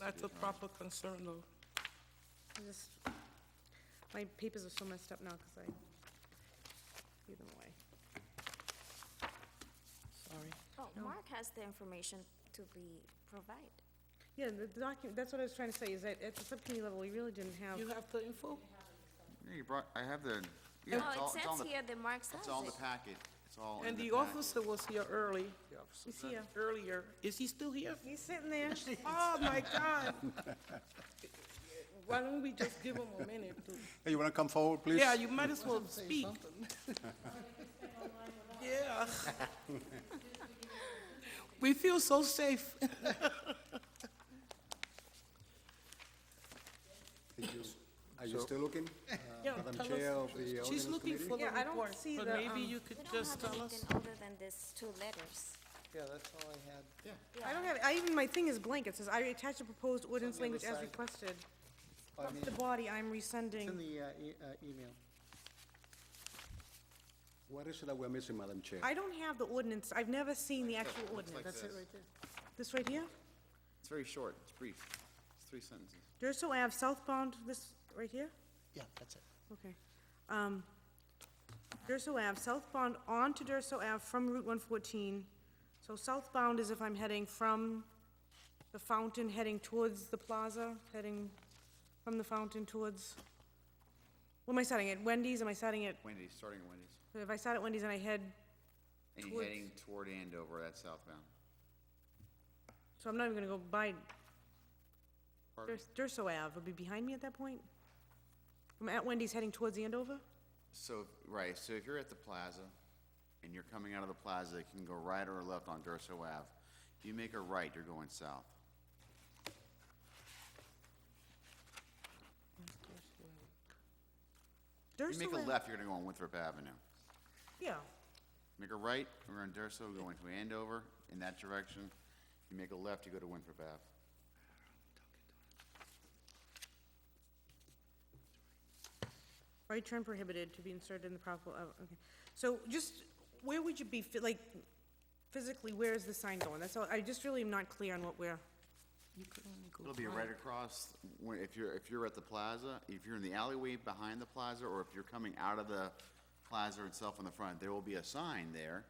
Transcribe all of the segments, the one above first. That's a proper concern, though. I just, my papers are so messed up now because I threw them away. Sorry. Oh, Mark has the information to be provided. Yeah, the document, that's what I was trying to say, is that at the subcommittee level, we really didn't have, You have the info? Yeah, you brought, I have the, yeah, No, it's all, it's all Oh, it in says the, here that Mark has it's all in the it. packet. It's all in And the the packet. officer was here early, he's here. earlier. Is he still here? uh, He's sitting there. Oh, my God. Why don't we just give him a minute to, Hey, you want to come forward, please? yeah, you might as well speak. Yeah. We feel so safe. Did you- Are you still looking? Uh, Yeah, Madam tell Chair us- of the She's Ordinance looking Committee? for the Yeah, I don't report, see but the, maybe um, you could We don't just have tell us. anything other than these two letters. Yeah, that's all I had. I don't have, I even, my thing is blank, it says, I attach the proposed ordinance the other language as side. requested. Oh, I Off mean, the body, I'm it's in rescinding. the uh, e- uh, email. What is it that we're missing, Madam Chair? I don't have the ordinance, I've never seen the actual ordinance. That's it right there. This right here? It's very short, it's brief. It's three sentences. Durso Ave southbound, this, right here? Yeah, that's it. Okay. Um, Durso Ave, southbound onto Durso Ave from Route 114. So southbound is if I'm heading from the fountain, heading towards the plaza, heading from the fountain towards, what am I starting at? Wendy's? Am I starting at, Wendy's, starting at Wendy's. if I start at Wendy's and I head, And you're Towards- heading toward Andover, that's southbound. so I'm not even gonna go by Pardon? Durs- Durso Ave, it'll be behind me at that point? I'm at Wendy's heading towards Andover? So, right, so if you're at the plaza and you're coming out of the plaza, you can go right or left on Durso Ave. If you make a right, you're going south. If you Durso make a Ave- left, you're gonna go on Winthrop Avenue. Yeah, Make a right, we're on Durso, going to Andover in that direction. You make a left, you go to Winthrop Ave. Right turn prohibited to be inserted in the proper, oh, okay. So just, where would you be, phy- like, physically, where is the sign going? That's all, I just really am not clear on what we're, It'll be right across, when- if you're, if you're at the plaza, if you're in the alleyway behind the plaza, or if you're coming out of the plaza itself on the front, there will be a sign there,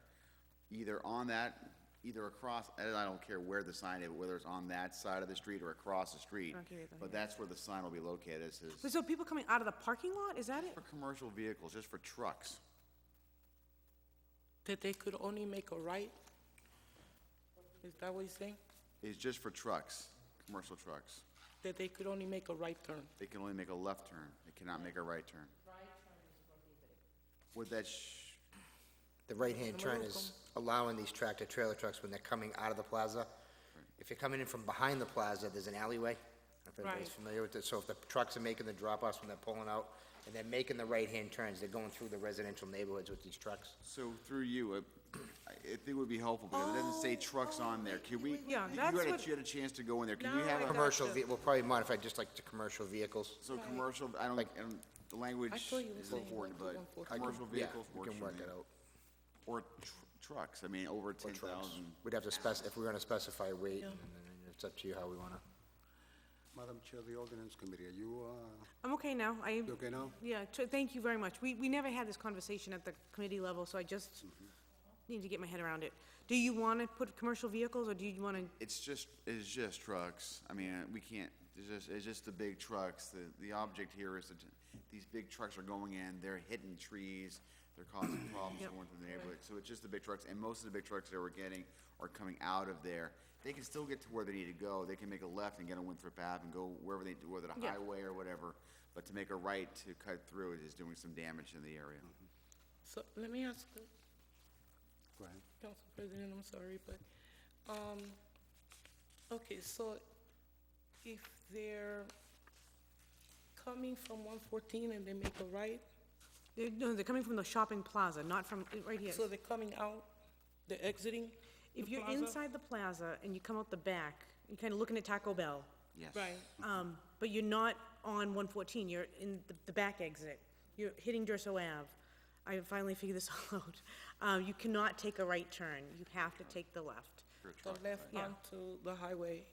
either on that, either across, and I don't care where the sign is, whether it's on that side of the street or across the street. Okay, then, But that's where the sign will be located, it says, so people coming out of the parking lot, is that it? for commercial vehicles, just for trucks. That they could only make a right? Is that what he's saying? It's just for trucks, commercial trucks. That they could only make a right turn? They can only make a left turn, they cannot make a right turn. Would that, sh- The right-hand turn is allowing these tractor-trailer trucks when they're coming out of the plaza. If you're coming in from behind the plaza, there's an alleyway. If Right. everybody's familiar with it, so if the trucks are making the drop-offs when they're pulling out, and they're making the right-hand turns, they're going through the residential neighborhoods with these trucks. So through you, it- I I think it would be helpful, because it doesn't Oh, say trucks on there. Can we? Yeah, you- that's you had a- what- You had a chance to go in there. Can you No, I have a, got- Commercial, ve- we'll probably modify just like to commercial vehicles. so commercial, I don't, I don't- the language I is thought you were saying important, one- but one fourth. commercial Yeah, vehicles we works can for work me. that out. Or tr- trucks, I mean, over ten thousand. We'd have to spec, if we're gonna specify weight, and then it's up to you how we wanna. Madam Chair of the Ordinance Committee, are you, uh, I'm okay now, I, you okay now? yeah, tr- thank you very much. We, we never had this conversation at the committee level, so I just need to get my head around it. Do you wanna put commercial vehicles, or do you wanna, It's just, it's just trucks. I mean, we can't, it's just, it's just the big trucks. The, the object here is that these big trucks are going in, they're hitting trees, they're causing problems going through the neighborhood. So it's just the big trucks, and most of the big trucks that we're getting are coming out of there. They can still get to where they need to go. They can make a left and get on Winthrop Ave and go wherever they, whether the Yeah. highway or whatever. But to make a right to cut through it is doing some damage in the area. So, let me ask the Go ahead. Council President, I'm sorry, but, um, okay, so if they're coming from one fourteen and they make a right, they're, eh, no, they're coming from the shopping plaza, not from, eh, right here. so they're coming out, they're exiting the If you're plaza? inside the plaza and you come out the back, you're kinda looking at Taco Bell, Yes. Right, Um, but you're not on one fourteen, you're in the, the back exit. You're hitting Durso Ave. I finally figured this all out. Um, you cannot take a right turn, you have to take the left. the left onto the highway.